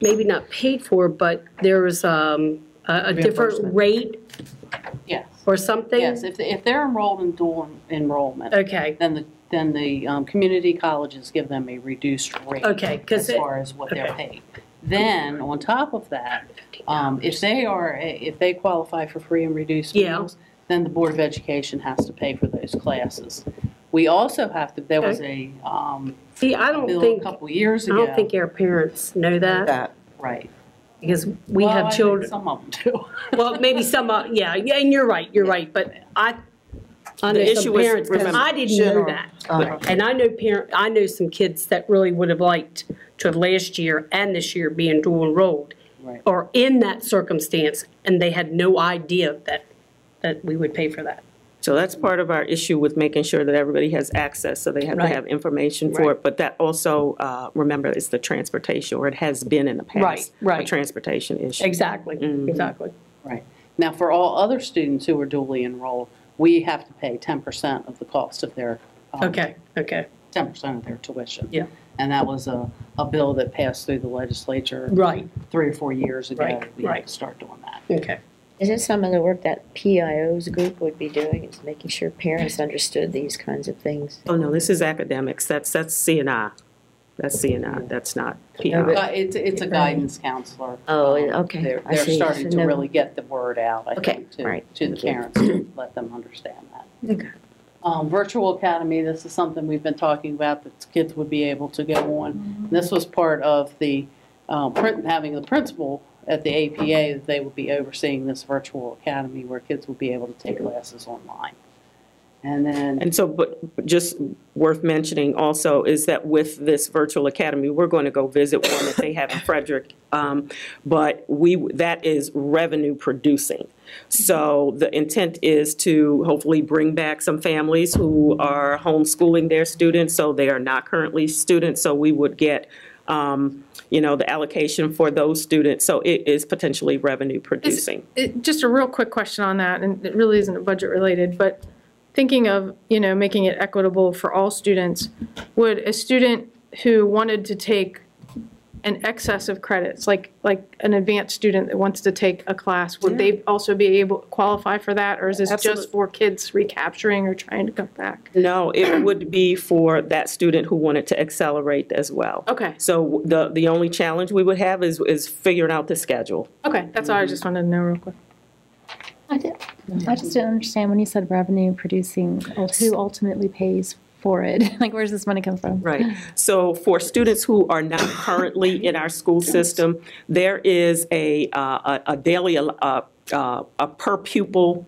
maybe not paid for, but there is um, a a different Reimbursement. rate Yes, or something? yes, if, if they're enrolled in dual enrollment, Okay, then the, then the um, community colleges give them a reduced rate. okay, because, As far as what they're paid. Then, on top of that, um, if they are, a- if they qualify for free and reduced Yeah. meals, then the Board of Education has to pay for those classes. We also have to, there was a um, see, I don't bill a think, couple years I ago. don't think our parents know that, that. Right. because we Well, I have think children. Some of them do. Well, maybe some, uh, yeah, yeah, and you're right, you're right, but I, I know The issue some was, parents, 'cause remember, I didn't know general- that. um, Uh, And I know parent, I know some kids that really would have liked to have last year and this year being dual enrolled Right. or in that circumstance, and they had no idea that, that we would pay for that. So that's part of our issue with making sure that everybody has access, so they have to Right. have information for Right. it. But that also, uh, remember, it's the transportation, or it has been in the past. Right, right. A transportation issue. Exactly, exactly. Right. Now, for all other students who are duly enrolled, we have to pay 10% of the cost of their. um, Okay, okay, 10% of their tuition. Yeah. And that was a, a bill that passed through the legislature right, three or four years ago. Right, We had right. to start doing that. okay. Is it some of the work that PIO's group would be doing, is making sure parents understood these kinds of things? Oh, no, this is academics, that's, that's CNI. That's CNI, that's not but- PI. Uh, It's, it's a guidance counselor. Oh, Um, okay. They're, I they're see. starting to No. really get the word out, I Okay, think, to, right. to the parents, to let them understand that. Okay. Um, Virtual Academy, this is something we've been talking about that kids would be able to go on. Mm-hmm. This was part of the, uh, prin- having the principal at the APA, that they would be overseeing this virtual academy where kids would be able to take classes online. And then. And so, but just worth mentioning also is that with this virtual academy, we're going to go visit one that they have in Frederick. um, But we, that is revenue producing. So the intent is to hopefully bring back some families who are homeschooling their students, so they are not currently students. So we would get, um, you know, the allocation for those students. So it is potentially revenue producing. It- Just a real quick question on that, and it really isn't budget related, but thinking of, you know, making it equitable for all students, would a student who wanted to take an excess of credits, like, like an advanced student that wants to take a class, would they also be able, qualify for that? Or is this Absolutely. just for kids recapturing or trying to come back? No, it would be for that student who wanted to accelerate as well. Okay, So the, the only challenge we would have is, is figuring out the schedule. okay, that's all I just wanted to know real quick. I did, I just didn't understand when you said revenue producing, who ultimately pays for it? Like, where's this money come from? Right. So for students who are not currently in our school system, there is a, uh, a a daily, uh, uh, a per pupil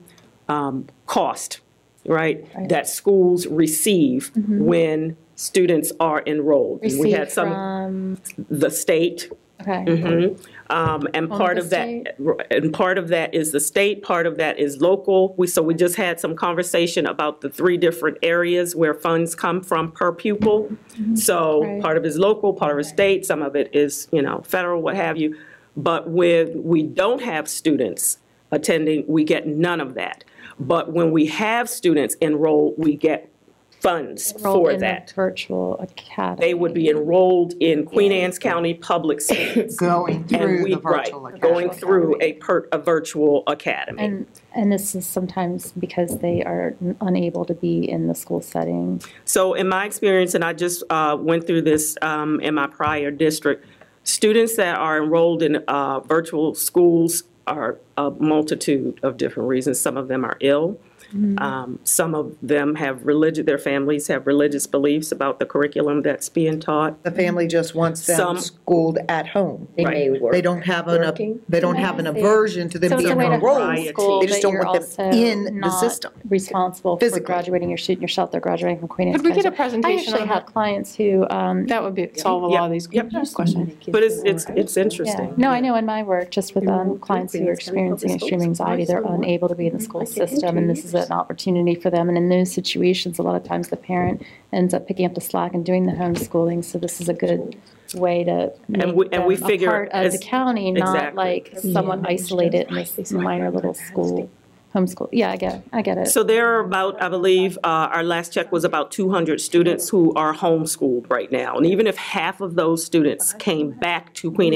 um, cost, right? Mm-hmm. That schools receive when students are enrolled. And We had Received some, from, the state, okay, Mhm. Um, And All part the of that, state? and part of that is the state, part of that is local. We, so we just had some conversation about the three different areas where funds come from per pupil. So Mm-hmm. Right. part of it is local, part of it is state, some of it is, you know, federal, what have you. But when we don't have students attending, we get none of that. But when we have students enrolled, we get funds enrolled for in the that. virtual academy. They would be enrolled in Queen Anne's County Public Schools. going And through we, the right, virtual academy. going through a per, a virtual academy. And, and this is sometimes because they are n- unable to be in the school setting. So in my experience, and I just uh, went through this um, in my prior district, students that are enrolled in uh, virtual schools are a multitude of different reasons. Some of them are ill. Mm-hmm. Um, Some of them have religious, their families have religious beliefs about the curriculum that's being taught. The family just wants Some- them schooled at home. They may work. They don't have an, Working. they don't have an aversion to them So it's a being way to enrolled. homeschool, They just but don't you're want also them in the not system. Responsible for Physically. graduating your student yourself, they're graduating from Queen Anne's. Could we get a College. presentation I on actually that? have clients who, um, That would be, solve a lot of these Yep. questions. But it's, it's, it's Yeah, interesting. no, I know in my work, just with um, Enrolled clients who are programs, kind of experiencing focused extreme on anxiety, they're personal unable to be in the development, school like they did system, two and this is years. an opportunity for them. And in those situations, a lot of times the parent ends up picking up the slack and doing the homeschooling, so this is a good way to make we- and them we a figure part of the as- county, not exactly. like someone isolated in this minor little school, homeschool. Yeah, I get, I get it. So there are about, I believe, uh, our last check was about 200 students who are homeschooled right now. And even if half of those students came back to Queen Anne